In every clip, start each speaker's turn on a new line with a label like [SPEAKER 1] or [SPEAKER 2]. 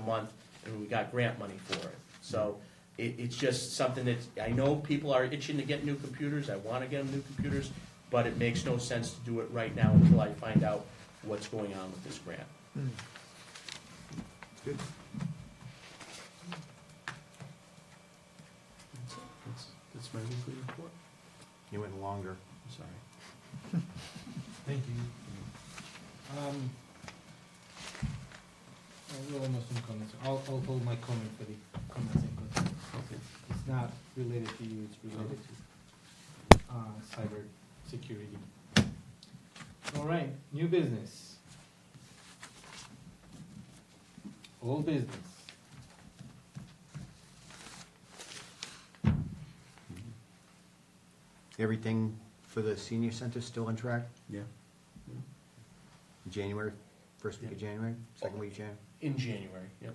[SPEAKER 1] month, and we got grant money for it. So it, it's just something that, I know people are itching to get new computers, I wanna get them new computers, but it makes no sense to do it right now until I find out what's going on with this grant.
[SPEAKER 2] Good.
[SPEAKER 1] That's it. That's, that's my weekly report,
[SPEAKER 2] You went longer.
[SPEAKER 1] I'm sorry.
[SPEAKER 3] Thank you. Um, I will almost some comments. I'll, I'll hold my comment for the comments and concerns. It's not related to you, it's related to, uh, cyber security. All right, new business. Old business.
[SPEAKER 2] Everything for the senior center still on track?
[SPEAKER 1] Yeah.
[SPEAKER 2] January, first week of January, second week of January?
[SPEAKER 1] In January, yep.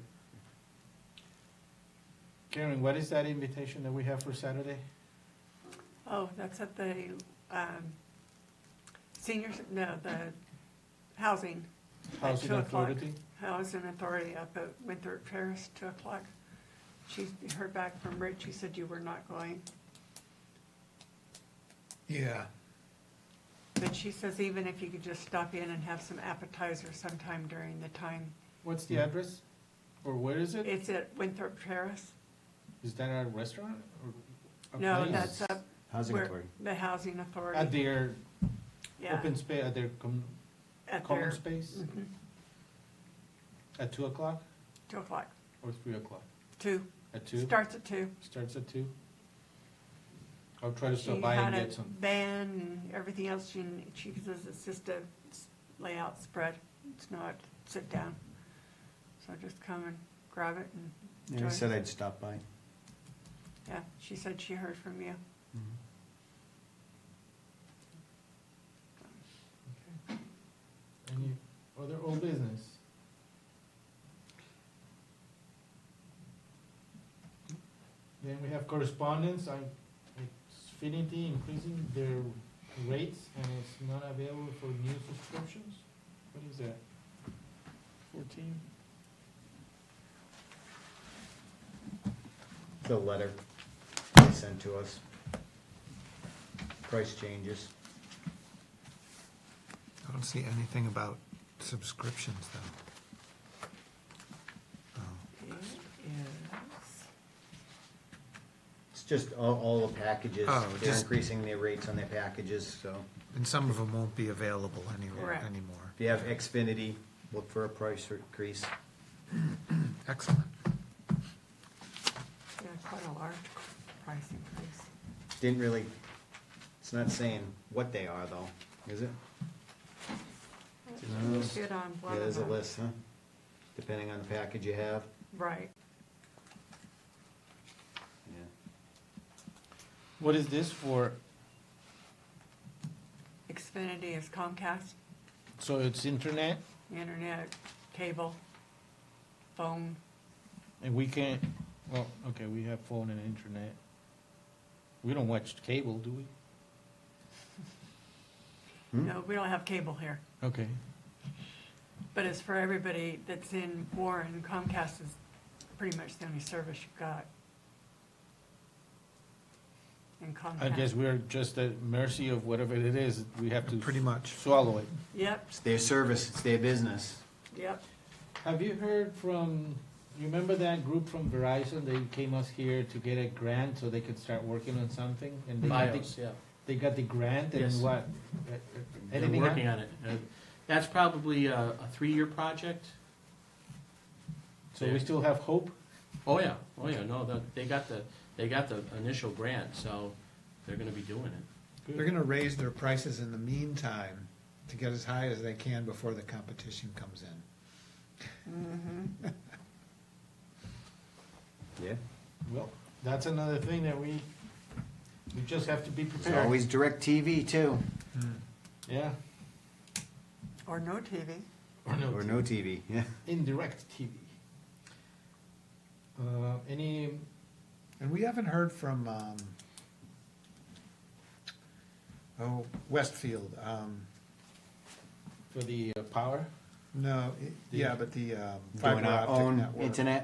[SPEAKER 3] Karen, what is that invitation that we have for Saturday?
[SPEAKER 4] Oh, that's at the um, senior, no, the housing,
[SPEAKER 3] Housing
[SPEAKER 4] two o'clock.
[SPEAKER 3] Authority?
[SPEAKER 4] housing authority up at Winthrop Terrace, two o'clock. She heard back from Rich, she said you were not going,
[SPEAKER 5] Yeah,
[SPEAKER 4] but she says even if you could just stop in and have some appetizers sometime during the time.
[SPEAKER 3] What's the address? Or where is it?
[SPEAKER 4] It's at Winthrop Terrace?
[SPEAKER 3] Is that a restaurant or a
[SPEAKER 4] No,
[SPEAKER 3] place?
[SPEAKER 4] that's up
[SPEAKER 2] Housing
[SPEAKER 4] where-
[SPEAKER 2] authority.
[SPEAKER 4] the housing
[SPEAKER 3] At
[SPEAKER 4] authority,
[SPEAKER 3] their
[SPEAKER 4] yeah,
[SPEAKER 3] open space, at their com-
[SPEAKER 4] at
[SPEAKER 3] common
[SPEAKER 4] their,
[SPEAKER 3] space,
[SPEAKER 4] mhm,
[SPEAKER 3] at two o'clock
[SPEAKER 4] two o'clock,
[SPEAKER 3] or three o'clock?
[SPEAKER 4] two,
[SPEAKER 3] At two,
[SPEAKER 4] starts at two.
[SPEAKER 3] starts at two? I'll try to
[SPEAKER 4] She
[SPEAKER 3] stop by
[SPEAKER 4] had
[SPEAKER 3] and
[SPEAKER 4] a
[SPEAKER 3] get some.
[SPEAKER 4] Van and everything else, she, she says it's just a s- layout spread, it's not sit down. So just come and grab it and,
[SPEAKER 2] Yeah, I said I'd stop by.
[SPEAKER 4] yeah, she said she heard from you.
[SPEAKER 3] Any other old business? Then we have correspondence, I, Xfinity increasing their rates and it's not available for new subscriptions? What is that? Fourteen?
[SPEAKER 2] The letter they sent to us. Price changes.
[SPEAKER 5] I don't see anything about subscriptions though. Oh,
[SPEAKER 4] It is.
[SPEAKER 2] It's just all, all the packages.
[SPEAKER 5] Oh,
[SPEAKER 2] They're
[SPEAKER 5] just-
[SPEAKER 2] increasing their rates on their packages, so
[SPEAKER 5] And some of them won't be available anywhere
[SPEAKER 4] Correct.
[SPEAKER 5] anymore.
[SPEAKER 2] if you have Xfinity, look for a price increase.
[SPEAKER 5] Excellent.
[SPEAKER 4] Yeah, quite a large price increase.
[SPEAKER 2] Didn't really, it's not saying what they are though, is it?
[SPEAKER 4] It was Good on
[SPEAKER 2] Yeah,
[SPEAKER 4] one of
[SPEAKER 2] there's a
[SPEAKER 4] them.
[SPEAKER 2] list, huh? Depending on the package you have.
[SPEAKER 4] Right,
[SPEAKER 2] Yeah.
[SPEAKER 3] What is this for?
[SPEAKER 4] Xfinity is Comcast,
[SPEAKER 3] So it's internet
[SPEAKER 4] internet, cable, phone,
[SPEAKER 3] and we can't, well, okay, we have phone and internet. We don't watch cable, do we?
[SPEAKER 2] Hmm?
[SPEAKER 4] no, we don't have cable here.
[SPEAKER 3] Okay.
[SPEAKER 4] But it's for everybody that's in Warren, Comcast is pretty much the only service you've got. In Comcast.
[SPEAKER 3] I guess we're just at mercy of whatever it is, we have
[SPEAKER 5] Pretty
[SPEAKER 3] to
[SPEAKER 5] much.
[SPEAKER 3] swallow it.
[SPEAKER 4] Yep,
[SPEAKER 2] It's their service, it's their business.
[SPEAKER 4] yep,
[SPEAKER 3] Have you heard from, you remember that group from Verizon, they came us here to get a grant so they could start working on something? And they got the-
[SPEAKER 1] BIOS, yeah.
[SPEAKER 3] They got the grant
[SPEAKER 1] Yes.
[SPEAKER 3] and what?
[SPEAKER 1] They're
[SPEAKER 3] Anything
[SPEAKER 1] working on it. Uh, That's probably a, a three-year project.
[SPEAKER 3] So we still have hope?
[SPEAKER 1] Oh, yeah, oh, yeah, no, the- they got the, they got the initial grant, so they're gonna be doing it.
[SPEAKER 5] They're gonna raise their prices in the meantime to get as high as they can before the competition comes in.
[SPEAKER 2] Yeah.
[SPEAKER 3] Well, that's another thing that we, we just have to be
[SPEAKER 2] There's
[SPEAKER 3] prepared.
[SPEAKER 2] always direct TV too.
[SPEAKER 3] Yeah.
[SPEAKER 4] or no TV.
[SPEAKER 5] Oh,
[SPEAKER 3] Or no
[SPEAKER 2] Or no TV, yeah.
[SPEAKER 3] Indirect TV. Uh, any,
[SPEAKER 5] And we haven't heard from, um, oh, Westfield, um,
[SPEAKER 3] for the uh, power?
[SPEAKER 5] No, i- yeah, but the um, fiber
[SPEAKER 2] Doing our
[SPEAKER 5] optic
[SPEAKER 2] own
[SPEAKER 5] um, network.
[SPEAKER 2] internet?